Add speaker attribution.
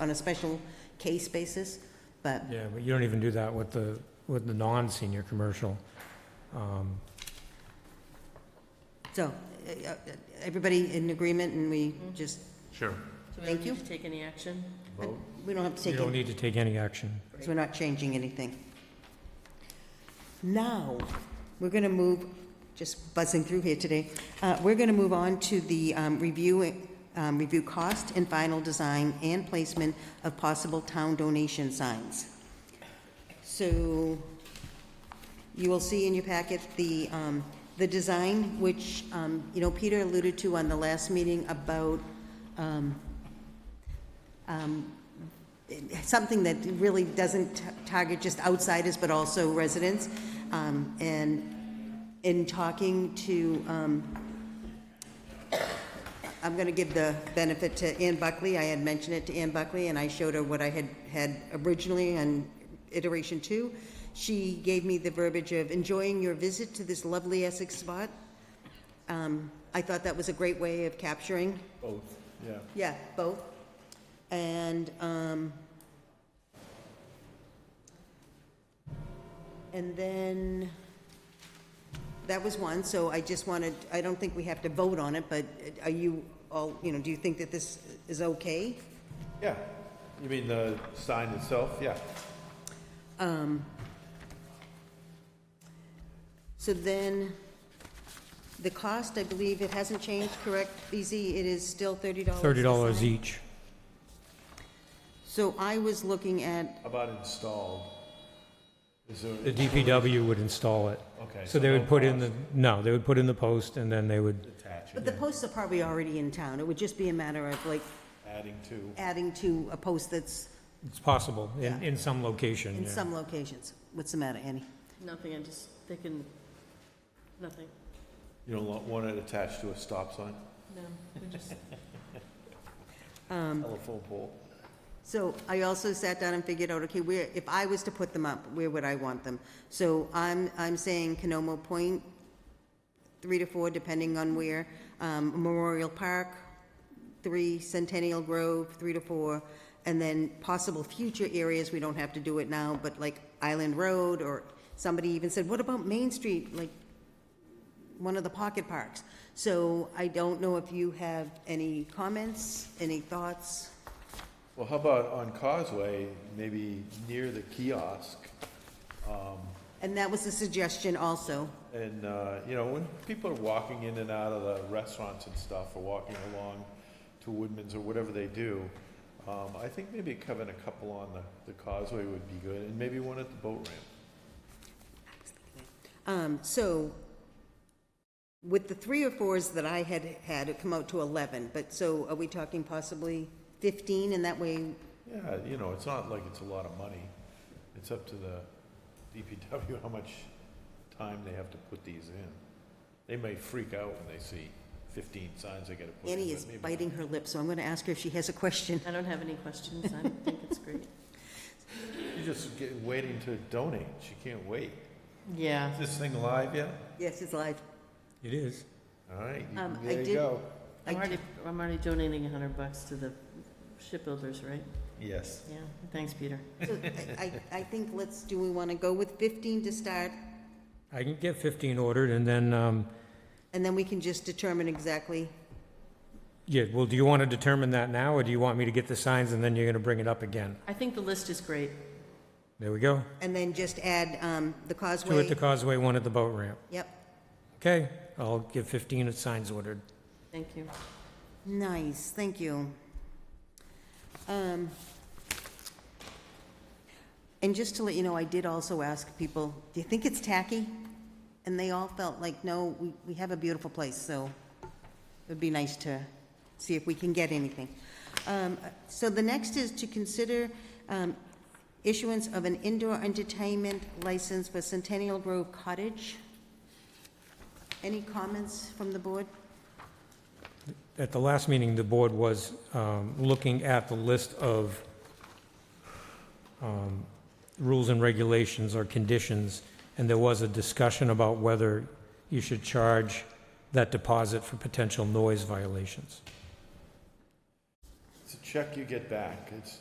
Speaker 1: on a special case basis, but
Speaker 2: Yeah, but you don't even do that with the, with the non-senior commercial. Um,
Speaker 1: So, uh, uh, everybody in agreement, and we just,
Speaker 2: Sure.
Speaker 3: Mm-hmm. So we
Speaker 1: Thank
Speaker 3: don't
Speaker 1: you.
Speaker 3: need to take any action?
Speaker 1: we don't have to
Speaker 2: You
Speaker 1: take
Speaker 2: don't
Speaker 1: any,
Speaker 2: need to take any action.
Speaker 1: so we're not changing anything. Now, we're going to move, just buzzing through here today, uh, we're going to move on to the um, review, um, review cost and final design and placement of possible town donation signs. So you will see in your packet the, um, the design, which, um, you know, Peter alluded to on the last meeting about, um, um, something that really doesn't t- target just outsiders, but also residents. Um, and in talking to, um, I'm going to give the benefit to Ann Buckley. I had mentioned it to Ann Buckley, and I showed her what I had, had originally on iteration two. She gave me the verbiage of enjoying your visit to this lovely Essex spot. Um, I thought that was a great way of capturing,
Speaker 4: Both, yeah.
Speaker 1: yeah, both. And, um, and then, that was one, so I just wanted, I don't think we have to vote on it, but are you all, you know, do you think that this is okay?
Speaker 4: Yeah. You mean the sign itself? Yeah.
Speaker 1: So then, the cost, I believe it hasn't changed, correct, BZ? It is still thirty dollars?
Speaker 2: Thirty dollars e- each.
Speaker 1: So I was looking at,
Speaker 4: How about installed? Is there?
Speaker 2: The DPW would install it.
Speaker 4: Okay.
Speaker 2: So they would
Speaker 4: no
Speaker 2: put in the,
Speaker 4: cost
Speaker 2: no, they would put in the post and then they would,
Speaker 4: Attach
Speaker 1: but the
Speaker 4: it,
Speaker 1: posts are probably already in town. It would just be a matter of like
Speaker 4: adding to.
Speaker 1: adding to a post that's
Speaker 2: it's possible in,
Speaker 1: Yeah.
Speaker 2: in some location,
Speaker 1: in
Speaker 2: yeah.
Speaker 1: some locations. What's the matter, Annie?
Speaker 3: Nothing, I just, they can, nothing.
Speaker 4: You don't want it attached to a stop sign,
Speaker 3: No, we just,
Speaker 4: telephone pole.
Speaker 1: So I also sat down and figured out, okay, where, if I was to put them up, where would I want them? So I'm, I'm saying Canomo Point, three to four, depending on where, um, Memorial Park, three, Centennial Grove, three to four, and then possible future areas, we don't have to do it now, but like Island Road, or somebody even said, what about Main Street, like, one of the pocket parks? So I don't know if you have any comments, any thoughts?
Speaker 4: Well, how about on Causeway, maybe near the kiosk?
Speaker 1: And that was a suggestion also.
Speaker 4: And, uh, you know, when people are walking in and out of the restaurants and stuff, or walking along to Woodman's or whatever they do, um, I think maybe covering a couple on the, the causeway would be good, and maybe one at the boat ramp.
Speaker 1: Um, so with the three or fours that I had had, it come out to 11, but so are we talking possibly 15? And that way,
Speaker 4: Yeah, you know, it's not like it's a lot of money. It's up to the DPW how much time they have to put these in. They may freak out when they see fifteen signs they gotta put in.
Speaker 1: Annie
Speaker 4: but
Speaker 1: is
Speaker 4: maybe not.
Speaker 1: biting her lip, so I'm going to ask her if she has a question.
Speaker 3: I don't have any questions, I think it's great.
Speaker 4: You're just get- waiting to donate. She can't wait.
Speaker 3: Yeah.
Speaker 4: Is this thing live yet?
Speaker 1: Yes, it's live.
Speaker 2: It is.
Speaker 4: All right, you-
Speaker 1: Um, I
Speaker 4: there
Speaker 1: did-
Speaker 4: you go.
Speaker 1: I
Speaker 3: I'm
Speaker 1: d-
Speaker 3: already, I'm already donating a hundred bucks to the shipbuilders, right?
Speaker 4: Yes.
Speaker 3: Yeah, thanks, Peter.
Speaker 1: So I, I I think let's, do we want to go with 15 to start?
Speaker 2: I can get fifteen ordered and then, um,
Speaker 1: And then we can just determine exactly.
Speaker 2: yeah, well, do you want to determine that now or do you want me to get the signs and then you're gonna bring it up again?
Speaker 3: I think the list is great.
Speaker 2: There we go.
Speaker 1: And then just add um, the
Speaker 2: Two at
Speaker 1: causeway.
Speaker 2: the causeway, one at the boat ramp.
Speaker 1: Yep.
Speaker 2: Okay, I'll give fifteen signs ordered.
Speaker 3: Thank you.
Speaker 1: Nice, thank you. Um, And just to let you know, I did also ask people, do you think it's tacky? And they all felt like, no, we, we have a beautiful place, so it'd be nice to see if we can get anything. Um, So the next is to consider um, issuance of an indoor entertainment license for Centennial Grove Cottage. Any comments from the board?
Speaker 2: At the last meeting, the board was um, looking at the list of um, rules and regulations or conditions, and there was a discussion about whether you should charge that deposit for potential noise violations.
Speaker 4: It's a check you get back. It's